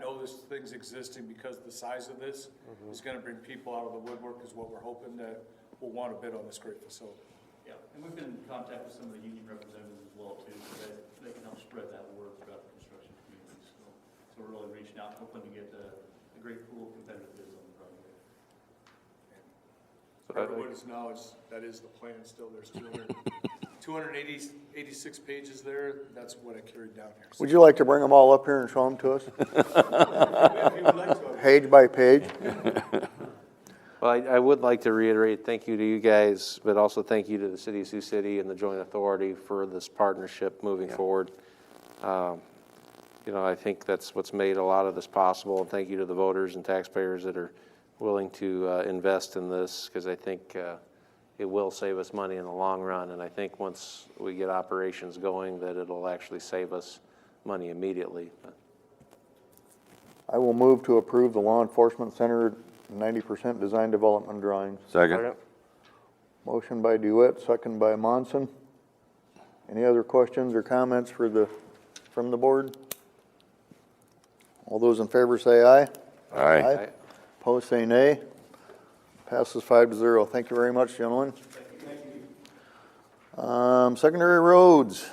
those things existing, because the size of this is gonna bring people out of the woodwork, is what we're hoping that will want to bid on this great facility. Yeah, and we've been in contact with some of the union representatives as well too, so that they can help spread that word throughout the construction community. So, so we're really reaching out, hoping to get a, a great pool of competitive bids on the project. So that- Everyone's knowledge, that is the plan still, there's 200 280 86 pages there, that's what I carried down here. So Would you like to bring them all up here and show them to us, If you would like to, page by page? Well, I, I would like to reiterate, thank you to you guys, but also thank you to the city of Sioux City and the joint authority for this partnership moving forward. Um, You know, I think that's what's made a lot of this possible, and thank you to the voters and taxpayers that are willing to uh, invest in this, because I think uh, it will save us money in the long run, and I think once we get operations going, that it'll actually save us money immediately. But I will move to approve the law enforcement center ninety percent design development drawings. Second? Motion by Dewitt, second by Monson. Any other questions or comments for the, from the board? All those in favor say aye. Aye. Aye. Opposed say nay. Passes five to zero. Thank you very much, gentlemen. Um, secondary roads.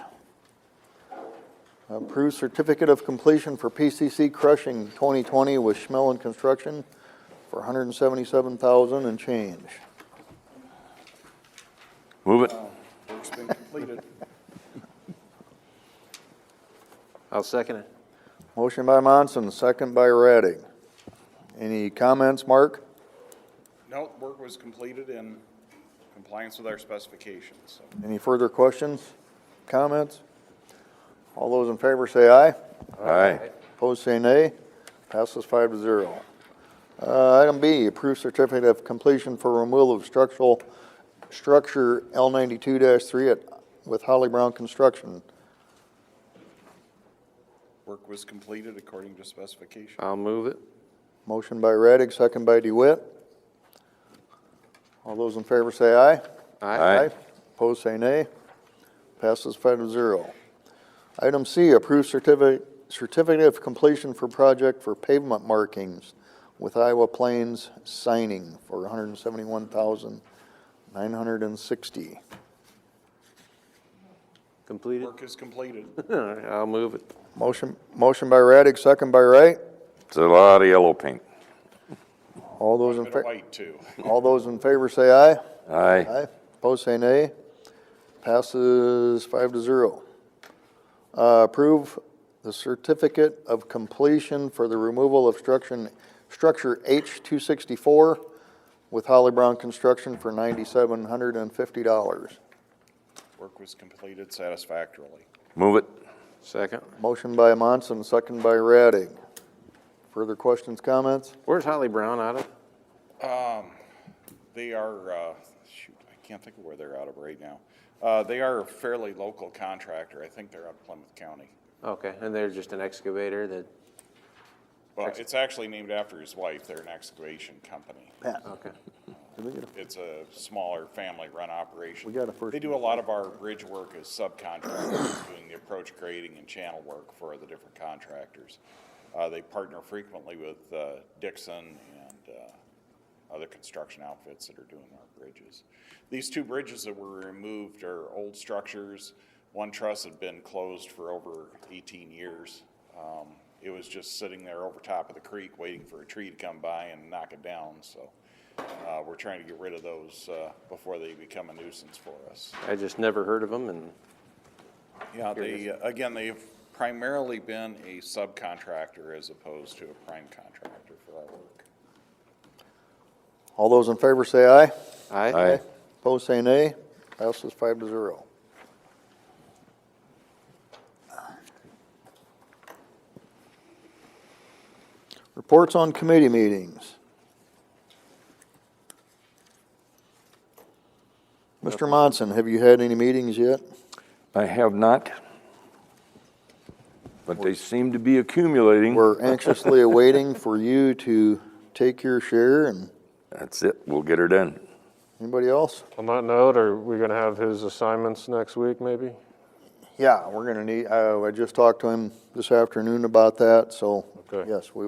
Approved certificate of completion for PCC crushing 2020 with Schmelling Construction for 177,000 and change. Move it. work's been completed. I'll second it. Motion by Monson, second by Radig. Any comments, Mark? No, work was completed in compliance with our specifications, so. Any further questions, comments? All those in favor say aye. Aye. Opposed, say nay. Passes five to zero. Uh, Item B, approve certificate of completion for removal of structural, structure L ninety-two three at, with Holly Brown Construction. Work was completed according to specification. I'll move it. Motion by Radig, second by DeWitt. All those in favor say aye. Aye. Opposed, say nay. Passes five to zero. Item C, approve certificate, certificate of completion for project for pavement markings with Iowa Plains signing for one hundred and seventy-one thousand, nine hundred and sixty. Completed. Work is completed. All right, I'll move it. Motion, motion by Radig, second by Wright. It's a lot of yellow paint. All those in, Bit of fa- white, too. all those in favor say aye. Aye. Aye. Opposed, say nay. Passes five to zero. Uh, Approve the certificate of completion for the removal of structure, structure H-264 with Holly Brown Construction for $9,750. Work was completed satisfactorily. Move it. Second. Motion by Monson, second by Radig. Further questions, comments? Where's Holly Brown out of? They are, uh, shoot, I can't think of where they're out of right now. Uh, They are a fairly local contractor. I think they're out of Plymouth County. Okay, and they're just an excavator that, Well, it's actually named after his wife. They're an excavation company. okay. Did we get a- It's a smaller family-run operation. We got a first- They do a lot of our bridge work as subcontractors, doing the approach grading and channel work for the different contractors. Uh, they partner frequently with, uh, Dixon and, uh, other construction outfits that are doing our bridges. These two bridges that were removed are old structures. One truss had been closed for over eighteen years. Um, it was just sitting there over top of the creek, waiting for a tree to come by and knock it down, so. Uh, we're trying to get rid of those, uh, before they become a nuisance for us. I just never heard of them and, Yeah, they, uh, again, they've primarily been a subcontractor as opposed to a prime contractor for our work. All those in favor say aye. aye? Aye. Opposed, say nay. Passes five to zero. Reports on committee meetings. Mr. Monson, have you had any meetings yet? I have not. But they seem to be accumulating. We're anxiously awaiting for you to take your share and That's it. We'll get her done. anybody else? On that note, are we gonna have his assignments next week, maybe? uh, Yeah, we're gonna need, I, I just talked to him this afternoon about that, so, Okay. yes, we